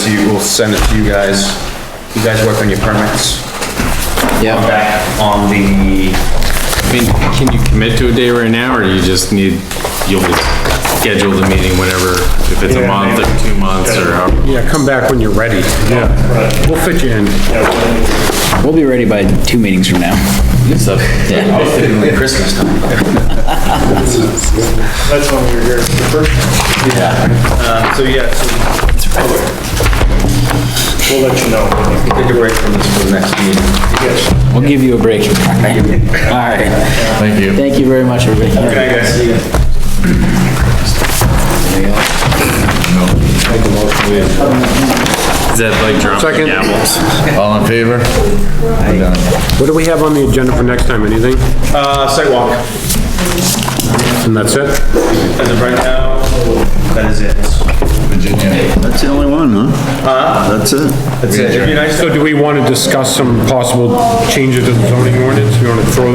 to you, we'll send it to you guys. You guys work on your permits. Yeah. I'm back on the, I mean, can you commit to a day right now, or you just need, you'll schedule the meeting whenever, if it's a month or two months or however? Yeah, come back when you're ready. Yeah. We'll fit you in. We'll be ready by two meetings from now. So, yeah. I'll fit in like Christmas time. That's when we were here for the first time. Um, so yeah, so We'll let you know. take a break from this for the next meeting. Yes. We'll give you a break. All right. Thank you. Thank you very much, everybody. Okay, guys, see you. Is that like dropping Second. apples? All in favor? We're done. What do we have on the agenda for next time? Anything? Uh, sidewalk, And that's it? as of right now, that is it. Virginia. That's the only one, huh? That's it. Uh-huh. That's it. It'd be nice to So do we want to discuss some possible changes to the zoning ordinance? You want to throw